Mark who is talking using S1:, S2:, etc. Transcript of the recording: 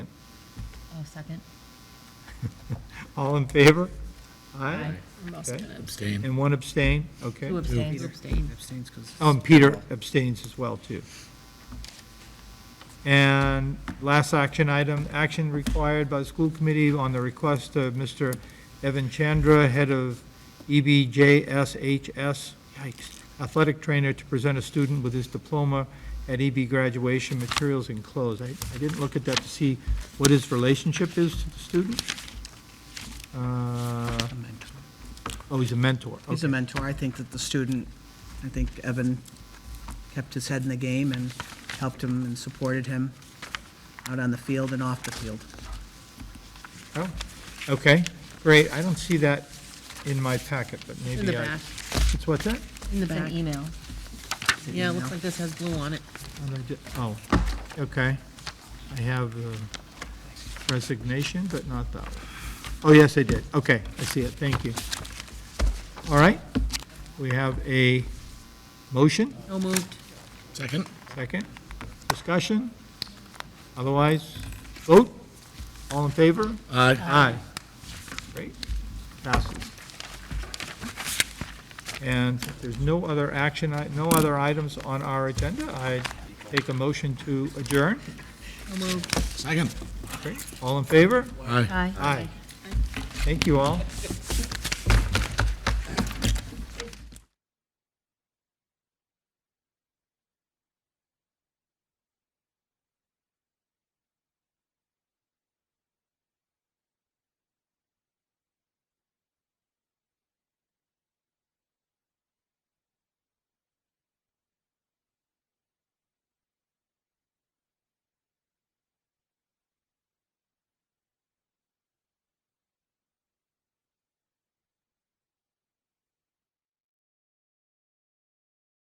S1: Oh,
S2: Second.
S3: All in favor?
S2: Aye.
S3: Aye?
S1: I'm also
S3: Okay.
S1: gonna
S4: Abstain.
S3: And one abstain? Okay.
S2: Who abstains? Abstain.
S4: Abstains because.
S3: Oh, and Peter abstains as well, too. And last action item, action required by the school committee on the request of Mr. Evan Chandra, head of E EBJSHS, yikes, athletic trainer, to present a student with his diploma at EB graduation materials enclosed. I, I didn't look at that to see what his relationship is to the student. Uh,
S4: A mentor.
S3: Oh, he's a mentor.
S4: He's a
S3: Okay.
S4: mentor. I think that the student, I think Evan kept his head in the game and helped him and supported him out on the field and off the field.
S3: Oh, okay, great. I don't see that in my packet, but maybe I.
S1: In the back,
S3: It's what's that?
S1: in the
S2: It's an
S1: back.
S2: email.
S1: Yeah, it looks like this has blue on it.
S3: What I did- Oh, okay. I have uh, resignation, but not that one. Oh, yes, I did. Okay, I see it. Thank you. All right, we have a motion,
S1: No moved.
S4: Second.
S3: second, discussion. Otherwise, vote. All in favor?
S4: Aye.
S3: Aye. Great, passes. And if there's no other action, i- no other items on our agenda, I take a motion to adjourn.
S1: No moved.
S4: Second.
S3: All in favor?
S4: Aye.
S2: Aye.
S3: Thank you all.